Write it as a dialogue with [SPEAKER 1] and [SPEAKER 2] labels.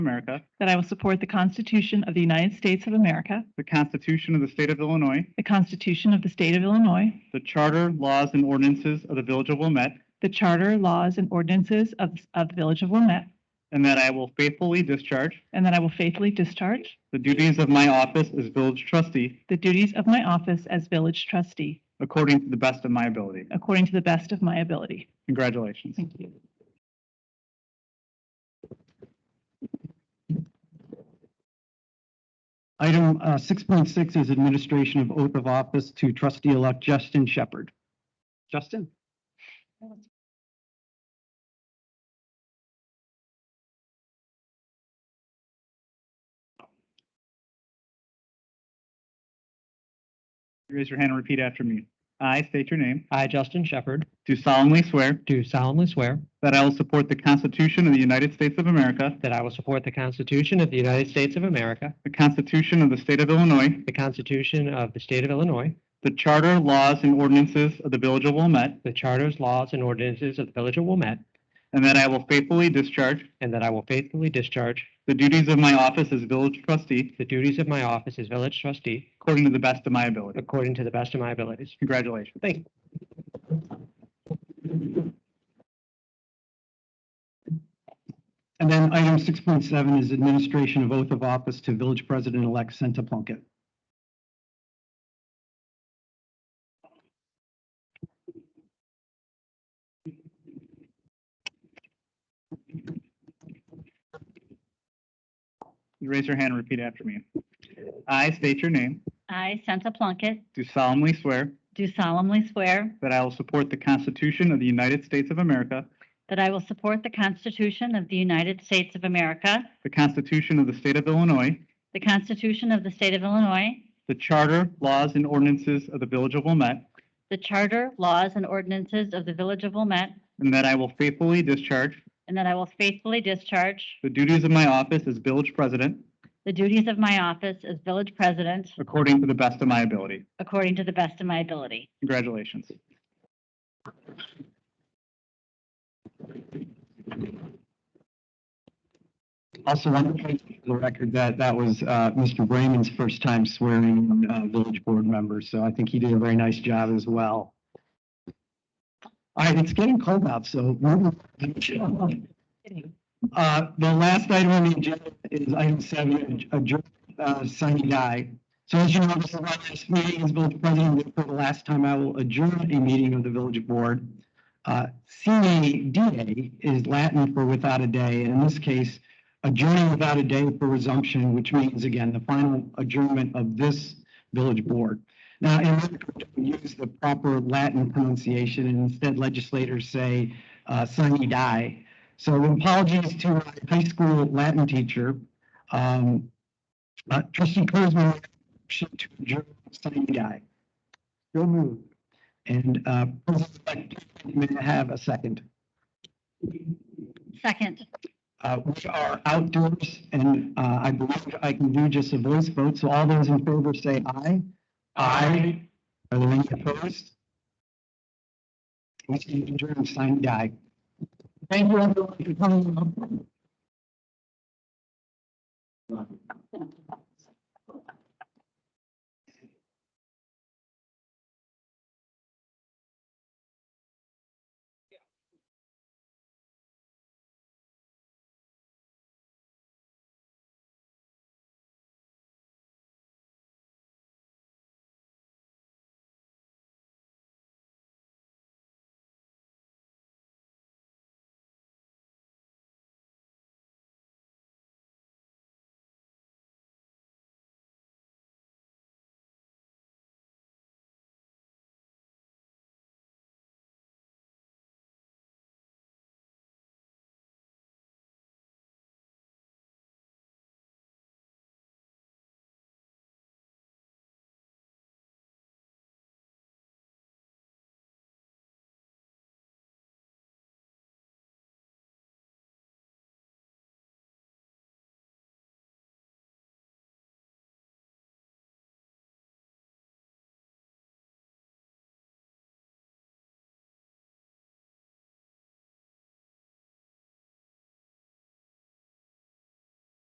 [SPEAKER 1] America,
[SPEAKER 2] that I will support the Constitution of the United States of America,
[SPEAKER 1] the Constitution of the State of Illinois,
[SPEAKER 2] the Constitution of the State of Illinois,
[SPEAKER 1] the Charter, laws, and ordinances of the Village of Wilmette,
[SPEAKER 2] the Charter, laws, and ordinances of, of the Village of Wilmette,
[SPEAKER 1] and that I will faithfully discharge
[SPEAKER 2] and that I will faithfully discharge
[SPEAKER 1] the duties of my office as Village Trustee
[SPEAKER 2] the duties of my office as Village Trustee
[SPEAKER 1] according to the best of my ability.
[SPEAKER 2] according to the best of my ability.
[SPEAKER 1] Congratulations.
[SPEAKER 2] Thank you.
[SPEAKER 3] Item uh, 6.6 is administration of oath of office to trustee-elect Justin Shepherd. Justin?
[SPEAKER 1] Raise your hand and repeat after me. I state your name.
[SPEAKER 3] I, Justin Shepherd,
[SPEAKER 1] Do solemnly swear
[SPEAKER 3] do solemnly swear
[SPEAKER 1] that I will support the Constitution of the United States of America,
[SPEAKER 3] that I will support the Constitution of the United States of America,
[SPEAKER 1] the Constitution of the State of Illinois,
[SPEAKER 3] the Constitution of the State of Illinois,
[SPEAKER 1] the Charter, laws, and ordinances of the Village of Wilmette,
[SPEAKER 3] the Charters, laws, and ordinances of the Village of Wilmette,
[SPEAKER 1] and that I will faithfully discharge
[SPEAKER 3] and that I will faithfully discharge
[SPEAKER 1] the duties of my office as Village Trustee
[SPEAKER 3] the duties of my office as Village Trustee
[SPEAKER 1] according to the best of my ability.
[SPEAKER 3] according to the best of my abilities.
[SPEAKER 1] Congratulations.
[SPEAKER 3] Thank you.
[SPEAKER 4] And then item six point seven is administration of oath of office to village president-elect Senta Plunkett.
[SPEAKER 1] You Raise your hand and repeat after me. I state your name.
[SPEAKER 5] I, Santa Plunkett,
[SPEAKER 1] Do solemnly swear
[SPEAKER 5] do solemnly swear
[SPEAKER 1] that I will support the Constitution of the United States of America,
[SPEAKER 5] that I will support the Constitution of the United States of America,
[SPEAKER 1] the Constitution of the State of Illinois,
[SPEAKER 5] the Constitution of the State of Illinois,
[SPEAKER 1] the Charter, laws, and ordinances of the Village of Wilmette,
[SPEAKER 5] the Charter, laws, and ordinances of the Village of Wilmette,
[SPEAKER 1] and that I will faithfully discharge
[SPEAKER 5] and that I will faithfully discharge
[SPEAKER 1] the duties of my office as Village President
[SPEAKER 5] the duties of my office as Village President
[SPEAKER 1] according to the best of my ability.
[SPEAKER 5] according to the best of my ability.
[SPEAKER 1] Congratulations.
[SPEAKER 4] Also, I want to place for the record that that was uh, Mr. Brayman's first time swearing uh, village board members, so I think he did a very nice job as well. All right, it's getting cold out, so. we're- Uh, The last item on the agenda is item seven, adjourn, uh, Sunny Guy. So as you know, this is my last meeting as village president, for the last time I will adjourn a meeting of the village board. Uh, Sine die is Latin for without a day, and in this case, adjourning without a day for resumption, which means again, the final adjournment of this village board. Now, in order to use the proper Latin pronunciation, and instead legislators say, uh, sine die. So apologies to my high school Latin teacher. Um, uh, trustee Kuzma, motion to adjourn sine die. So moved. And, uh, President-elect, may I have a second?
[SPEAKER 5] Second,
[SPEAKER 4] Uh, we are outdoors and, uh, I believe I can do just a voice vote. So all those in favor say aye. Aye. Are there any opposed? We stand adjourned, and sign die. Thank you everyone for coming.